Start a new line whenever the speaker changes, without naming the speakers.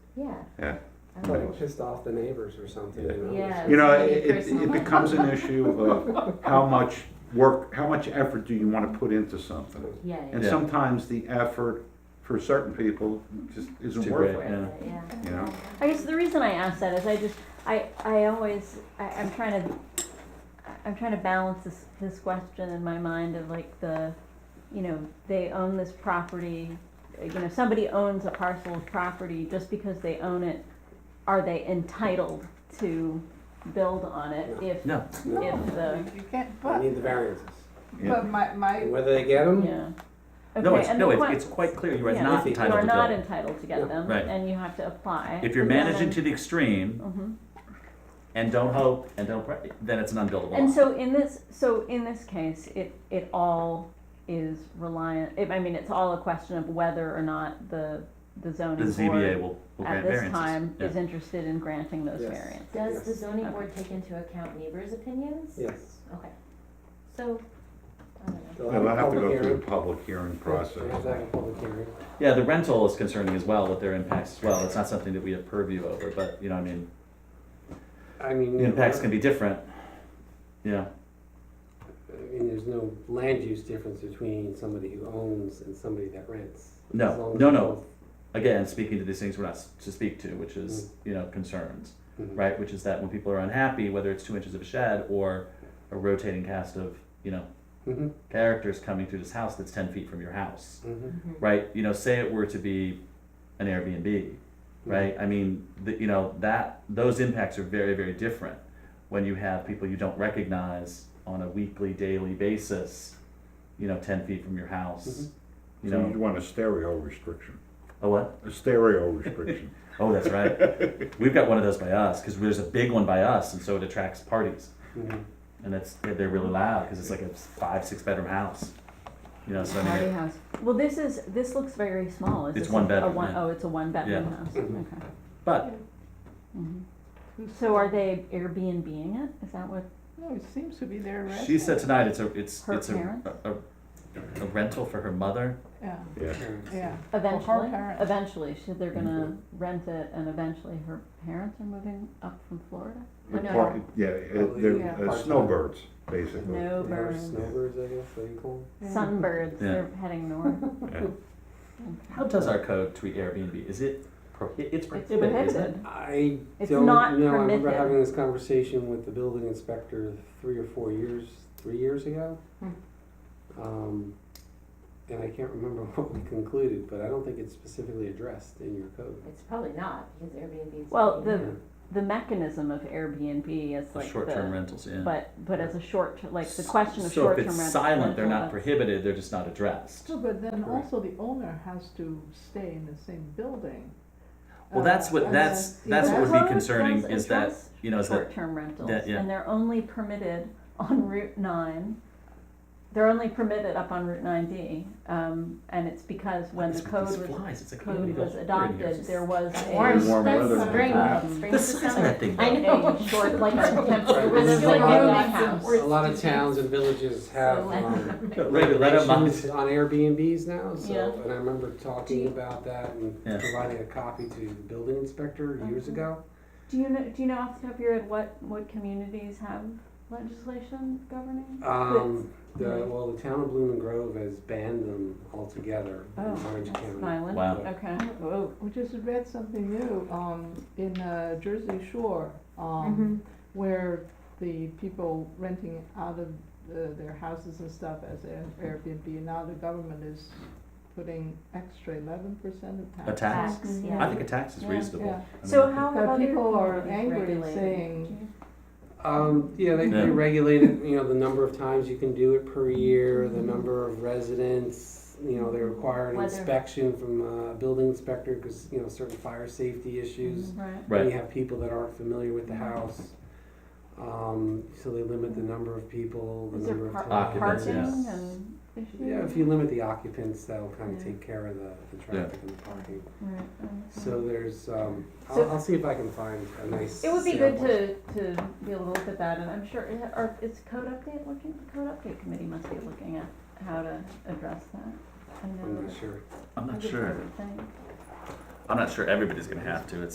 Yeah.
Yeah.
I
But-
would.
Like pissed off the neighbors or something. you know?
Yeah.
You know,
It's
it, it-
personal.
it becomes an issue of uh, how much work, how much effort do you want to put into something?
Yeah,
And
yeah,
Yeah.
sometimes the effort for certain people just isn't
Too
worth
great.
it,
Yeah.
yeah.
you know?
I guess the reason I ask that is I just I I always I, I'm trying to I'm trying to balance this this question in my mind of like the you know they own this property you know somebody owns a parcel of property just because they own it are they entitled to build on it if
No.
No,
if the
You can't,
They
but,
need the variances.
Yeah.
but my, my,
And whether they get them,
yeah okay
No, it's,
and
no,
the
it's,
que-
it's quite clear you are
Yeah,
not
if
you are
entitled to
not
build.
entitled to get
Yeah.
them
Right.
and you have to apply
If you're
And then-
managing to the extreme
Mhm.
and don't hope and don't pray, then it's an unbuildable
And
lot.
so in this, so in this case, it, it all is reliant, it, I mean, it's all a question of whether or not the, the
The
zoning
ZBA
board
will, will
at
grant
this
variances.
time
Yeah.
is interested in granting those
Yes.
variants.
Does the
Yes.
zoning board take into account neighbors' opinions?
yes.
Okay. So, I don't know.
They'll
They'll
a
have to
public
go through
hearing.
the public hearing
They have to
process.
have a public hearing.
Yeah, the rental is concerning as well, with their impacts as well. It's not something that we have purview over, but, you know, I mean,
I mean.
the impacts can be different. Yeah,
I mean, there's no land use difference between somebody who owns and somebody that rents.
No,
As long as
no,
they
no.
both-
again, speaking to these things we're not s- to speak to, which is, you know, concerns,
Mhm.
right? Which is that when people are unhappy, whether it's two inches of a shed or a rotating cast of, you know,
Mhm,
characters coming through this house that's ten feet from your house.
mhm.
right? You know, say it were to be an Airbnb, right? I mean, the, you know, that those impacts are very, very different when you have people you don't recognize on a weekly, daily basis, you know, 10 feet from your house, you
Mm-hmm. So you'd
know,
want a stereo restriction,
oh, what?
a stereo restriction.
Oh, that's right. We've got one of those by us because there's a big one by us, and so it attracts parties.
Mhm.
And that's they're really loud because it's like a five, six bedroom house, you know. So I mean,
Party
it-
house. Well, this is, this looks very small. Is
It's
this
one
a- a
bedroom,
one-
yeah.
Oh, it's a one bedroom
Yeah.
house,
Mhm.
okay.
but
Mhm. So are they Airbnb-ing it? Is that what,
no, it seems to be their resident.
she said tonight it's a it's
Her
it's a,
parents?
a a rental for her mother
Yeah,
Oh,
Yeah.
Mm-hmm.
yeah.
eventually,
parents.
eventually, should they're gonna
Mm-hmm.
rent it and eventually her parents are moving up from Florida?
Oh, no,
Park-
no.
Yeah,
Oh,
uh,
Yeah.
they're uh, snowbirds, basically.
No
They are
burn.
Snowbirds, I guess, they call 'em.
Yeah.
Sunbirds,
Yeah.
they're heading north.
Yeah.
How does our code treat Airbnb? Is it prohi- it's
It's
prohibited, isn't it?
prohibited.
I
It's
don't know, I
not
remember
permitted.
having this conversation with the building inspector three or four years, three years ago.
Hmm.
Um, And I can't remember what we concluded, but I don't think it's specifically addressed in your code.
It's probably not, because Airbnb's.
Well, the-
Yeah.
The mechanism of Airbnb is
The
like
short-term
the,
rentals, yeah.
but, but as a short, like the question of
so if
short-term uh,
it's
rental.
silent, they're not
rental,
prohibited. They're just not addressed.
So, but then
Correct.
also the owner has to stay in the same building.
Well, that's
Uh,
what
and
that's
then-
that's
The
what would
code
be
does
concerning is that
address
you know is that
Short-term rentals,
that- yeah.
and they're only permitted on Route nine. They're only permitted up on Route nine D, um, and it's because when the
It's with
code
these
was,
flies. It's like you
code
need to
was
go here and here.
adopted, there was a.
Orange,
warm weather
that's
than
spring,
that.
spring
The
to
size of
summer.
that thing,
I
though.
know.
a short, like temporary.
Right, there's
It was like
like no
my
reason
house.
for
A lot of towns and villages have um,
Right, let them mind.
regulations on Airbnbs now, so,
Yeah.
and I remember
Do
talking
you-
about that and
Yeah.
providing a copy to the building inspector years
Mhm.
ago.
Do you know, do you know off the top of your head what, what communities have legislation governing?
Um, the, well, the town of Blooming Grove has banned them altogether in
Oh,
Orange
that's
County.
violent.
Wow.
Okay.
We just read something new, um, in uh, Jersey Shore,
Mm-hmm.
um, where the people renting out of uh, their houses and stuff as Air- Airbnb, now the government is putting extra eleven percent of tax.
a tax.
Tax, yeah.
I think a tax is
Yeah.
reasonable.
Yeah.
I mean,
So how have
But
other
people are
communities
angry
regulated?
saying-
Do you-
Um, yeah, they, they
Yeah.
regulated, you know, the number of times you can do it per year,
Mm-hmm.
the number of residents, you know, they require an
Whether-
inspection from a building inspector because, you know, certain fire safety issues.
Right.
Then
Right.
you have people that aren't familiar with the
Mm-hmm.
house. Um, so they limit the number of people, the
Is
number
there
of
par-
times.
Occupants,
parking
yeah.
and issues?
Yeah, if you limit the occupants, that'll kind of
Yeah.
take care of the, the
Yeah.
traffic and the parking.
Right.
So there's, um,
So-
I'll, I'll see if I can find a nice.
It would be good
sample.
to, to be able to look at that, and I'm sure, or is code update looking, code update committee must be looking at how to address that. I know
I'm not
that-
sure.
I'm
I
not
just
sure.
heard it saying.
I'm not sure everybody's gonna have to, it's